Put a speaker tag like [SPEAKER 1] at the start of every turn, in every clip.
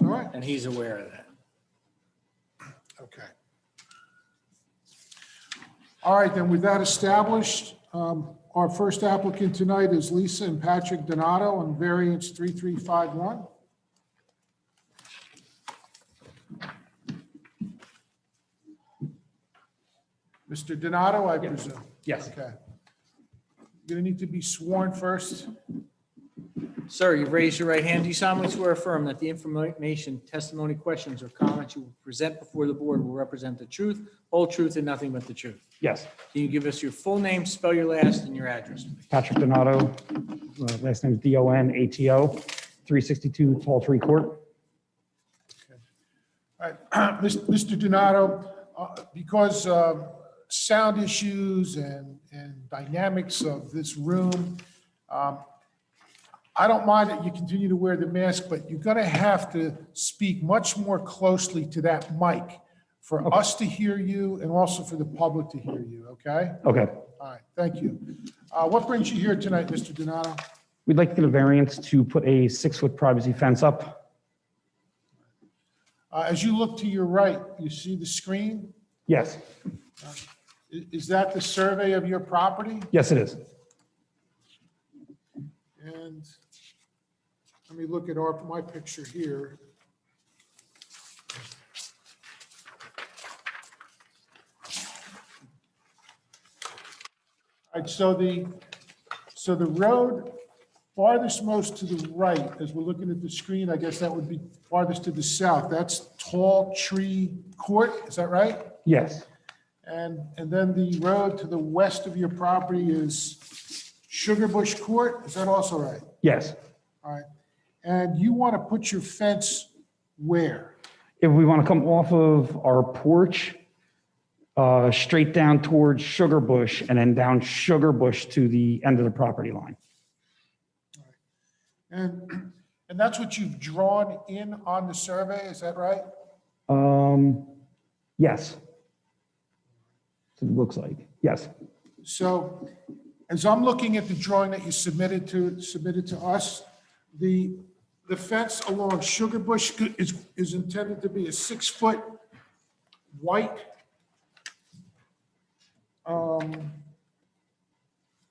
[SPEAKER 1] All right,
[SPEAKER 2] And he's aware of that.
[SPEAKER 1] okay. All right, then with that established, um, our first applicant tonight is Lisa and Patrick Donato on variance 3351. Mr. Donato, I presume?
[SPEAKER 2] Yes.
[SPEAKER 1] Okay. Going to need to be sworn first.
[SPEAKER 2] Sir, you raise your right hand. Do you solemnly swear or affirm that the information, testimony, questions, or comments you will present before the board will represent the truth, whole truth, and nothing but the truth?
[SPEAKER 3] Yes,
[SPEAKER 2] Can you give us your full name, spell your last, and your address, please?
[SPEAKER 3] Patrick Donato, uh, last name is D-O-N-A-T-O, 362 Tall Tree Court.
[SPEAKER 1] All right, Mis- Mr. Donato, uh, because uh, sound issues and, and dynamics of this room, um, I don't mind that you continue to wear the mask, but you're going to have to speak much more closely to that mic for us to hear you and also for the public to hear you, okay?
[SPEAKER 3] Okay,
[SPEAKER 1] All right, thank you. Uh, What brings you here tonight, Mr. Donato?
[SPEAKER 3] we'd like to get a variance to put a six-foot privacy fence up.
[SPEAKER 1] Uh, As you look to your right, you see the screen?
[SPEAKER 3] Yes,
[SPEAKER 1] I- Is that the survey of your property?
[SPEAKER 3] yes, it is.
[SPEAKER 1] And let me look at our, my picture here. All right, so the, so the road farthest most to the right, as we're looking at the screen, I guess that would be farthest to the south. That's Tall Tree Court, is that right?
[SPEAKER 3] Yes,
[SPEAKER 1] And, and then the road to the west of your property is Sugar Bush Court, is that also right?
[SPEAKER 3] yes.
[SPEAKER 1] All right. And you want to put your fence where?
[SPEAKER 3] If we want to come off of our porch, uh, straight down towards Sugar Bush and then down Sugar Bush to the end of the property line.
[SPEAKER 1] And, and that's what you've drawn in on the survey, is that right?
[SPEAKER 3] Um, Yes. That's what It looks like, yes.
[SPEAKER 1] So as I'm looking at the drawing that you submitted to, submitted to us, the, the fence along Sugar Bush is, is intended to be a six-foot white um,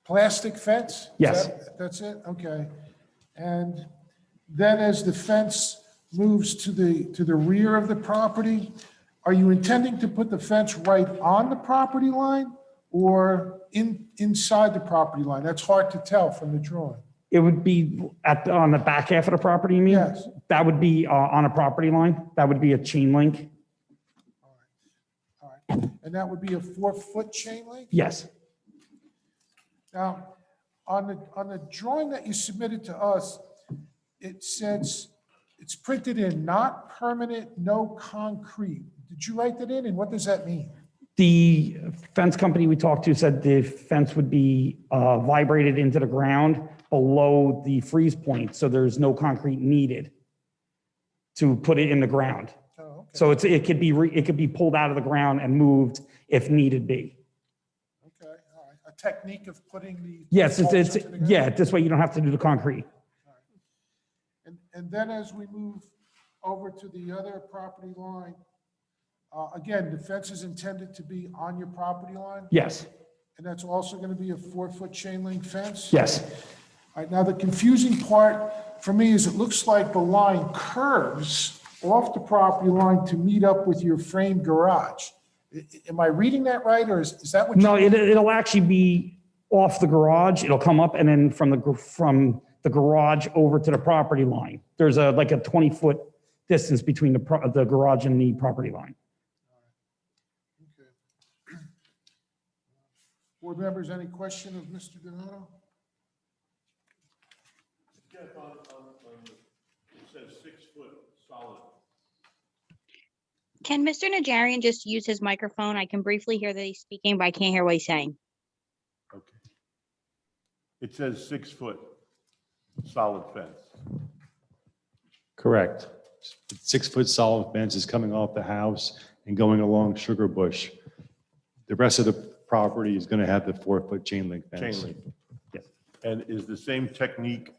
[SPEAKER 1] plastic fence? Is
[SPEAKER 3] Yes.
[SPEAKER 1] that- That's it? Okay. And then as the fence moves to the, to the rear of the property, are you intending to put the fence right on the property line or in, inside the property line? That's hard to tell from the drawing.
[SPEAKER 3] It would be at, on the back half of the property, you mean?
[SPEAKER 1] Yes.
[SPEAKER 3] That would be uh, on a property line. That would be a chain link.
[SPEAKER 1] All right. And that would be a four-foot chain link?
[SPEAKER 3] Yes,
[SPEAKER 1] Now, on the, on the drawing that you submitted to us, it says, it's printed in not permanent, no concrete. Did you write that in and what does that mean?
[SPEAKER 3] the fence company we talked to said the fence would be uh, vibrated into the ground below the freeze point, so there's no concrete needed to put it in the ground.
[SPEAKER 1] Oh, okay,
[SPEAKER 3] So it's, it could be, re- it could be pulled out of the ground and moved if needed be.
[SPEAKER 1] okay, all right. A technique of putting the.
[SPEAKER 3] Yes, it's,
[SPEAKER 1] poles
[SPEAKER 3] it's,
[SPEAKER 1] into the ground?
[SPEAKER 3] yeah, this way you don't have to do the concrete.
[SPEAKER 1] And, and then as we move over to the other property line, uh, again, the fence is intended to be on your property line?
[SPEAKER 3] Yes,
[SPEAKER 1] And that's also going to be a four-foot chain link fence?
[SPEAKER 3] yes,
[SPEAKER 1] All right, now the confusing part for me is it looks like the line curves off the property line to meet up with your frame garage. I- I- Am I reading that right, or is, is that what? you-
[SPEAKER 3] No, it, it'll actually be off the garage. It'll come up and then from the, gr- from the garage over to the property line. There's a, like a 20-foot distance between the, pro- the garage and the property line.
[SPEAKER 1] Okay. Board members, any question of Mr. Donato?
[SPEAKER 4] Jeff, on, on, on, the- it says six foot solid.
[SPEAKER 5] Can Mr. Najarian just use his microphone? I can briefly hear that he's speaking, but I can't hear what he's saying.
[SPEAKER 4] Okay. It says six foot solid fence.
[SPEAKER 6] Correct. Six-foot solid fence is coming off the house and going along Sugar Bush. The rest of the property is going to have the four-foot chain link
[SPEAKER 4] Chain
[SPEAKER 6] fence.
[SPEAKER 4] link.
[SPEAKER 3] Yes.
[SPEAKER 4] And is the same technique